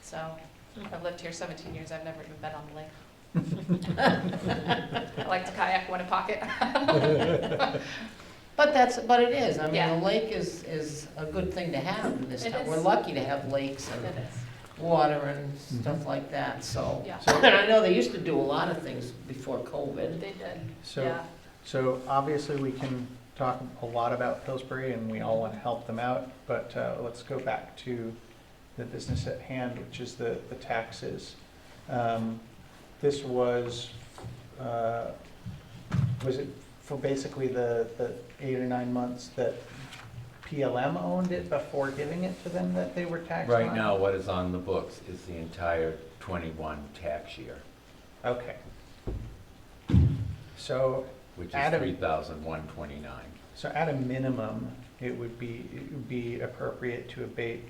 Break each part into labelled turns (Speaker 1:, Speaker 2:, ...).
Speaker 1: So I've lived here 17 years, I've never even been on the lake. I like to kayak when in pocket.
Speaker 2: But that's, but it is, I mean,
Speaker 1: Yeah.
Speaker 2: a lake is, is a good thing to have in this
Speaker 1: It
Speaker 2: town. We're
Speaker 1: is.
Speaker 2: lucky to have lakes
Speaker 1: It
Speaker 2: and
Speaker 1: is,
Speaker 2: water and
Speaker 3: Mm-hmm.
Speaker 2: stuff like that, so.
Speaker 1: yeah.
Speaker 2: And I know they used to do a lot of things before COVID.
Speaker 1: They did,
Speaker 3: So,
Speaker 1: yeah.
Speaker 3: so obviously we can talk a lot about Pillsbury and we all want to help them out, but uh, let's go back to the business at hand, which is the, the taxes. Um, This was, uh, was it for basically the, the eight or nine months that PLM owned it before giving it to them that they were taxed on?
Speaker 4: Right now, what is on the books is the entire 21 tax year,
Speaker 3: Okay. So
Speaker 4: which is
Speaker 3: Adam.
Speaker 4: 3,129.
Speaker 3: So at a minimum, it would be, it would be appropriate to abate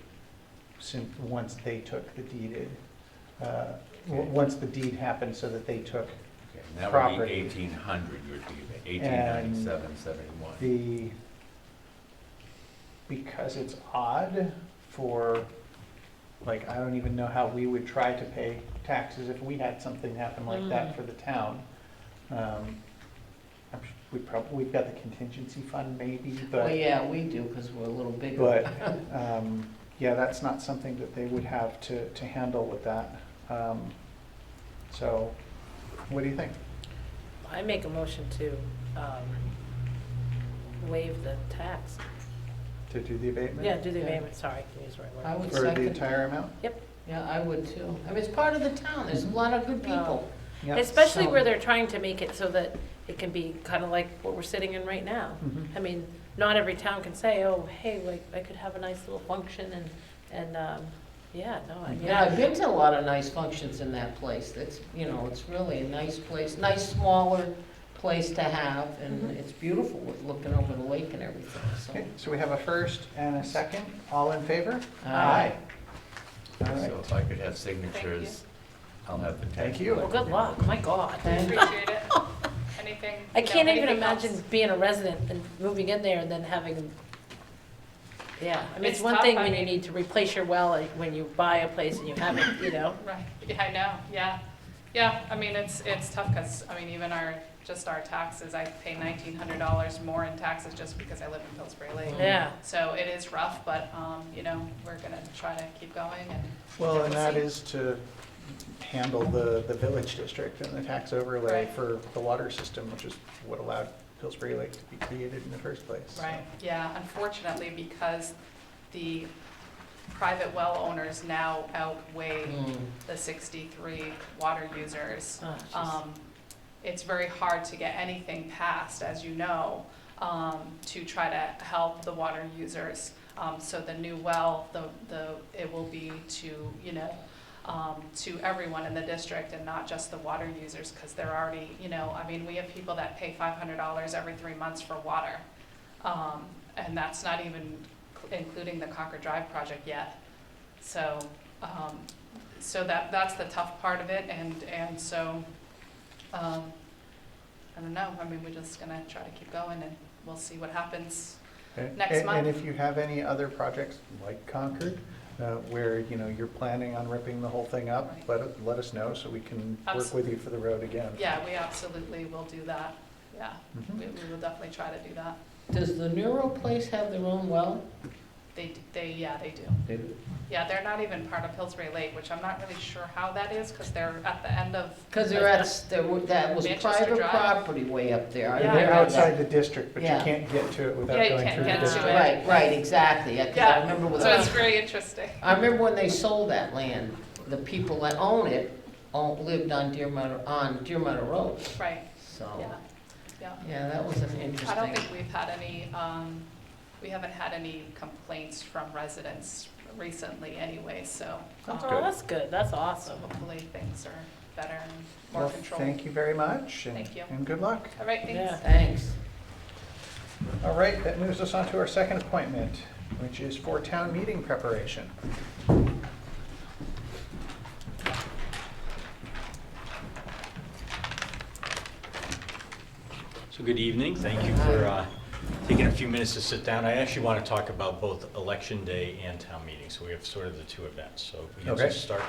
Speaker 3: since, once they took the deeded, uh, w-
Speaker 4: Okay.
Speaker 3: once the deed happened so that they took
Speaker 4: Okay, and that would be
Speaker 3: Property.
Speaker 4: 1,800, you're doing, 1,897, 71.
Speaker 3: the, because it's odd for, like, I don't even know how we would try to pay taxes if we had something happen like that for the town. Um, I'm su- We probably, we've got the contingency fund maybe, but.
Speaker 2: Well, yeah, we do, because we're a little bigger.
Speaker 3: But, um, yeah, that's not something that they would have to, to handle with that. Um, So, what do you think?
Speaker 5: I make a motion to um, waive the tax.
Speaker 3: To do the abatement?
Speaker 5: Yeah, do the
Speaker 2: Yeah.
Speaker 5: abatement, sorry, I can use the right
Speaker 2: I
Speaker 5: word.
Speaker 2: would
Speaker 3: For the
Speaker 2: second,
Speaker 3: entire amount?
Speaker 2: yeah, I would too. I mean, it's part of the town, there's a lot of good people.
Speaker 3: Yeah.
Speaker 5: Especially
Speaker 2: so-
Speaker 5: where they're trying to make it so that it can be kind of like what we're sitting in right now.
Speaker 3: Mhm.
Speaker 5: I mean, not every town can say, oh, hey, like, I could have a nice little function and, and, um, yeah, no, I mean.
Speaker 2: Yeah, I've been to a lot of nice functions in that place. It's, you know, it's really a nice place, nice smaller place to have, and
Speaker 1: Mm-hmm.
Speaker 5: Mhm.
Speaker 2: it's beautiful with looking over the lake and everything,
Speaker 3: Okay,
Speaker 2: so.
Speaker 3: so we have a first and a second, all in favor?
Speaker 2: Aye.
Speaker 3: All right,
Speaker 4: So if I could have signatures, I'll have the tax.
Speaker 3: Thank you.
Speaker 5: Well, good luck, my God.
Speaker 2: Thank-
Speaker 1: Appreciate it. Anything?
Speaker 5: I
Speaker 1: you know,
Speaker 5: can't even
Speaker 1: anything else?
Speaker 5: imagine being a resident and moving in there and then having, yeah, I mean,
Speaker 1: It's
Speaker 5: it's one
Speaker 1: tough,
Speaker 5: thing
Speaker 1: I
Speaker 5: when you
Speaker 1: mean-
Speaker 5: need to replace your well, like, when you buy a place and you haven't, you know?
Speaker 1: Right, yeah, I know, yeah. Yeah, I mean, it's, it's tough because, I mean, even our, just our taxes, I pay nineteen hundred dollars more in taxes just because I live in Pillsbury Lake.
Speaker 5: Yeah.
Speaker 1: So it is rough, but, um, you know, we're gonna try to keep going and.
Speaker 3: Well, and that is to handle the, the village district and the tax overlay
Speaker 1: Right.
Speaker 3: for the water system, which is what allowed Pillsbury Lake to be created in the first place. so.
Speaker 1: Right, yeah, unfortunately, because the private well owners now outweigh
Speaker 2: Mm.
Speaker 1: the sixty-three water users.
Speaker 5: Oh, jeez.
Speaker 1: Um, It's very hard to get anything passed, as you know, um, to try to help the water users. Um, So the new well, the, the, it will be to, you know, um, to everyone in the district and not just the water users, because they're already, you know, I mean, we have people that pay five hundred dollars every three months for water. Um, And that's not even including the Concord Drive project yet. So, um, so that, that's the tough part of it, and, and so, um, I don't know, I mean, we're just gonna try to keep going, and we'll see what happens.
Speaker 3: And-
Speaker 1: next
Speaker 3: and-
Speaker 1: month.
Speaker 3: And if you have any other projects like Concord, uh, where, you know, you're planning on ripping the whole thing up,
Speaker 1: Right.
Speaker 3: let, it- let us know so we can work with you for the road again.
Speaker 1: Yeah, we absolutely will do that, yeah,
Speaker 3: Mhm.
Speaker 1: we, we will definitely try to do that.
Speaker 2: Does the Neuro place have their own well?
Speaker 1: They, d- they, yeah, they do. Yeah, they're not even part of Pillsbury Lake, which I'm not really sure how that is, because they're at the end of,
Speaker 2: Because they're at, there were- that was
Speaker 1: Manchester
Speaker 2: private
Speaker 1: Drive.
Speaker 2: property way up there. I
Speaker 1: Yeah,
Speaker 3: They're
Speaker 2: remember
Speaker 3: outside
Speaker 2: that.
Speaker 3: the district, but you
Speaker 2: Yeah.
Speaker 3: can't get to it without
Speaker 1: Yeah, you
Speaker 3: going
Speaker 1: can't
Speaker 3: through the
Speaker 1: get to
Speaker 3: district.
Speaker 1: it.
Speaker 2: Right, right, exactly, because I
Speaker 1: Yeah.
Speaker 2: remember with
Speaker 1: so it's
Speaker 2: us.
Speaker 1: very interesting.
Speaker 2: I remember when they sold that land, the people that own it own- lived on Deer Meadow, on Deer Meadow Road,
Speaker 1: Right,
Speaker 2: so.
Speaker 1: yeah, yeah.
Speaker 2: Oh. Yeah, that was an
Speaker 1: I don't
Speaker 2: interesting,
Speaker 1: think we've had any, um, we haven't had any complaints from residents recently anyway, so. um,
Speaker 5: Oh, that's good, that's
Speaker 1: So
Speaker 5: awesome.
Speaker 1: hopefully things are better and more
Speaker 3: Well,
Speaker 1: controlled.
Speaker 3: thank you very much. and-
Speaker 1: Thank you.
Speaker 3: And good luck.
Speaker 1: All right,
Speaker 5: Yeah.
Speaker 1: thanks.
Speaker 2: thanks.
Speaker 3: All right, that moves us on to our second appointment, which is for town meeting preparation.
Speaker 6: So good evening, thank you for uh, taking a few minutes to sit down. I actually want to talk about both Election Day and Town Meeting, so we have sort of the two events. So if we can
Speaker 3: Okay.
Speaker 6: just start